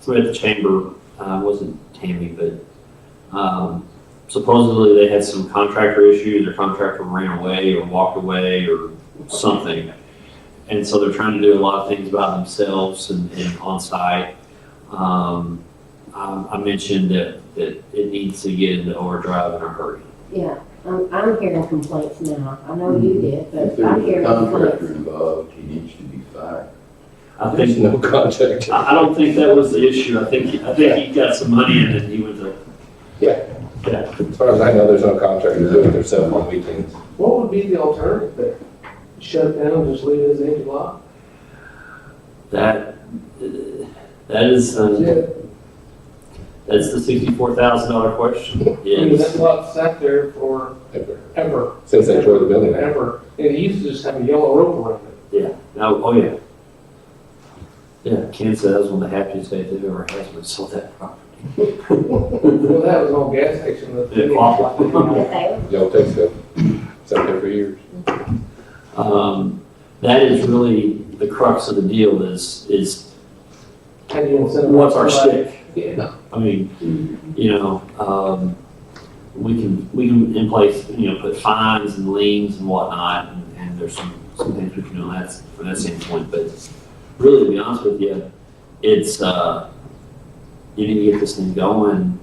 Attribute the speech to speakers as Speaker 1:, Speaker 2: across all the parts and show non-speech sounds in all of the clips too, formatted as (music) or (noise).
Speaker 1: through the chamber, uh, it wasn't Tammy, but, um, supposedly they had some contractor issues, their contractor ran away or walked away or something. And so they're trying to do a lot of things by themselves and, and on site. Um, I, I mentioned that, that it needs to get into overdrive in a hurry.
Speaker 2: Yeah, I'm, I'm hearing complaints now. I know you did,
Speaker 3: Mm-hmm. If
Speaker 2: but I'm
Speaker 3: there's a
Speaker 2: hearing
Speaker 3: contractor
Speaker 2: complaints.
Speaker 3: involved, he needs to be fired.
Speaker 1: I think
Speaker 4: There's no contract.
Speaker 1: I, I don't think that was the issue. I think, I think he got some money and then he went to.
Speaker 4: Yeah.
Speaker 1: Yeah.
Speaker 4: As far as I know, there's no contract to do it themselves on weekends.
Speaker 5: What would be the alternative there? Shut it down, just leave it as empty lot?
Speaker 1: That, uh, that is, uh, that's the sixty-four thousand dollar question.
Speaker 5: I mean, that
Speaker 1: Yes.
Speaker 5: lot sat there for
Speaker 4: ever,
Speaker 5: ever.
Speaker 4: Since they tore the building down.
Speaker 5: Ever, and it used to just have a yellow rope around it.
Speaker 1: No, oh, yeah. Yeah, Kansas, that was one of the happiest days they've ever had when they sold that property.
Speaker 5: Well, that was all gas station. that-
Speaker 1: (laughs) Yeah, awful.
Speaker 2: But they-
Speaker 4: Y'all take stuff. It's up there for years.
Speaker 1: Um, that is really the crux of the deal is, is
Speaker 5: How do you incentivize
Speaker 1: what's our
Speaker 5: somebody?
Speaker 1: stick?
Speaker 5: Yeah,
Speaker 1: I mean, you know, um, we can, we can in place, you know, put fines and liens and whatnot, and, and there's some, some things we can do on that, from that standpoint, but really, to be honest with you, it's, uh, you need to get this thing going,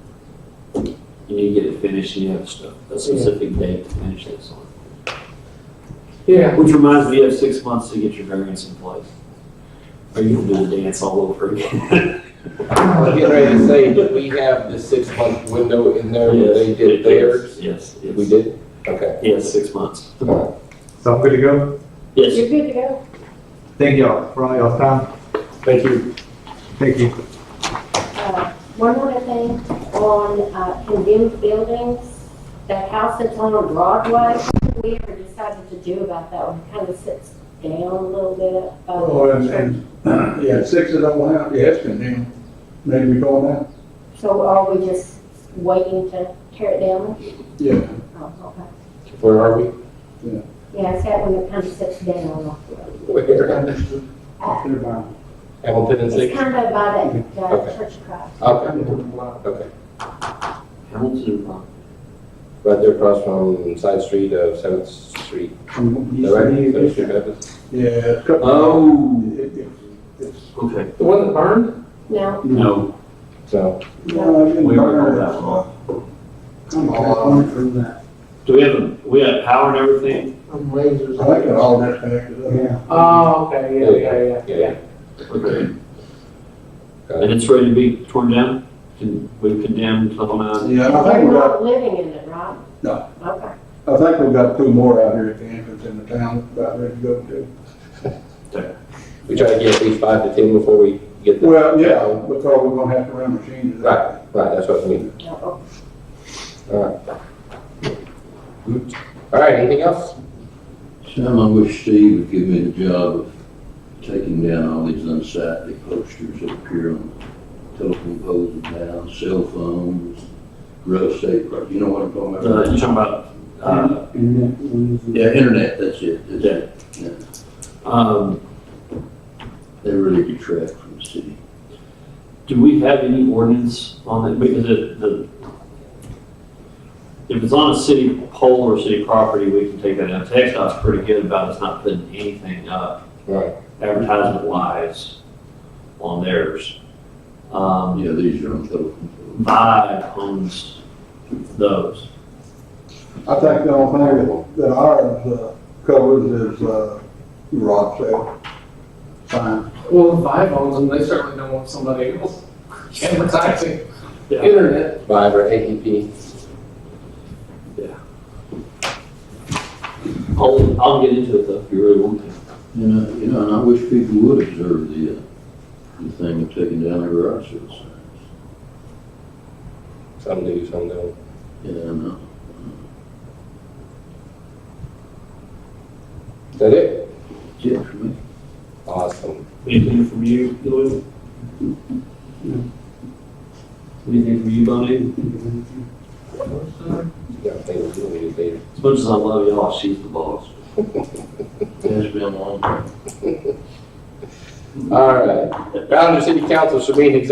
Speaker 1: you need to get it finished, and you have a st- a specific date to finish this on.
Speaker 5: yeah,
Speaker 1: Which reminds me, you have six months to get your variance in place, or you can do the dance all over again.
Speaker 4: I was getting ready to say, did we have the six-month window in there where they did theirs?
Speaker 1: Yes, yes.
Speaker 4: We did? Okay.
Speaker 1: Yes, six months.
Speaker 6: So I'm good to go.
Speaker 1: Yes,
Speaker 2: You're good to go.
Speaker 6: Thank y'all for all y'all's time.
Speaker 4: Thank you.
Speaker 6: Thank you.
Speaker 2: Uh, One more thing on uh, condemned buildings, that house that's on Broadway, what did we ever decided to do about that one? Kind of sits down a little bit. uh,
Speaker 7: Oh, and, and, (clears throat) yeah, six of them went out, yeah, it's condemned. Maybe we going out?
Speaker 2: So are we just waiting to tear it down?
Speaker 7: Yeah.
Speaker 2: Oh, okay.
Speaker 4: Where are we?
Speaker 2: Yeah, it's that one that kind of sits down off the road.
Speaker 4: Where?
Speaker 2: Uh,
Speaker 7: They're buying.
Speaker 4: Hamilton and
Speaker 2: It's
Speaker 4: Six?
Speaker 2: kind of by that uh,
Speaker 4: Okay.
Speaker 2: Church of Christ.
Speaker 4: Okay, okay.
Speaker 1: Hamilton, uh,
Speaker 4: Right there across from side street of Seventh Street.
Speaker 7: From-
Speaker 1: Um,
Speaker 4: Is that right? Seventh
Speaker 7: Yeah.
Speaker 4: Street Baptist?
Speaker 7: Yeah.
Speaker 1: Oh,
Speaker 7: It- it- it's-
Speaker 1: okay.
Speaker 5: the one that burned,
Speaker 2: No,
Speaker 1: No,
Speaker 4: So,
Speaker 7: No, it didn't
Speaker 1: we were
Speaker 7: burn.
Speaker 1: that one.
Speaker 7: I'm all on it from that.
Speaker 1: Do we have, a- we have power and everything?
Speaker 5: I'm lasers.
Speaker 7: I think it all disconnected. Yeah.
Speaker 5: Oh, okay, yeah, yeah, yeah,
Speaker 4: yeah,
Speaker 5: yeah.
Speaker 4: yeah.
Speaker 1: Okay.
Speaker 4: Got
Speaker 1: And
Speaker 4: it.
Speaker 1: it's ready to be torn down? Can, we've condemned the whole nine?
Speaker 7: Yeah, and I think
Speaker 2: we're
Speaker 7: we got,
Speaker 2: not living in it, right?
Speaker 7: No.
Speaker 2: Okay.
Speaker 7: I think we got two more out here at the entrance in the town, about ready to go to.
Speaker 4: We try to get at least five to 10 before we get the.
Speaker 7: Well, yeah, because we're gonna have to run machines.
Speaker 4: Right, right, that's what I mean.
Speaker 2: No.
Speaker 4: All right, anything else?
Speaker 8: Sam, I wish Steve would give me the job of taking down all these unsightly posters that appear on telephone poles and down, cell phones, real estate, pro- you know what I'm talking
Speaker 1: Uh,
Speaker 8: about?
Speaker 1: you're talking about, uh,
Speaker 8: Yeah, internet, that's it, that's it.
Speaker 1: um,
Speaker 8: They really detract from the city.
Speaker 1: do we have any ordinance on it? Because it, the, if it's on a city pole or city property, we can take that down. TechDOT's pretty good about us not putting anything up.
Speaker 4: Right.
Speaker 1: advertisement wise on theirs. Um,
Speaker 8: Yeah, these are on telephone poles.
Speaker 1: Vibe owns those.
Speaker 7: I think the only thing that- that ours uh, covers is, uh, garage sale. Fine.
Speaker 5: Well, five owns them, they certainly don't want somebody else (laughs) advertising
Speaker 1: Yeah.
Speaker 5: internet.
Speaker 4: Viber, AEP.
Speaker 1: I'll, I'll get into it though, if you really want to.
Speaker 8: You know, you know, and I wish people would observe the, uh, the thing of taking down the garage sale signs.
Speaker 4: Some do, some don't.
Speaker 8: Yeah, I know.
Speaker 4: Is that it?
Speaker 8: Yeah, for me.
Speaker 4: Awesome.
Speaker 1: Anything from you, Louis? Anything from you, Bonnie?
Speaker 4: Yeah, I think we'll do it later.
Speaker 1: As much as I love y'all, she's the
Speaker 8: (laughs)
Speaker 1: boss.
Speaker 8: It's been a long time.
Speaker 4: All right. Bound to City Council, Sabine, executive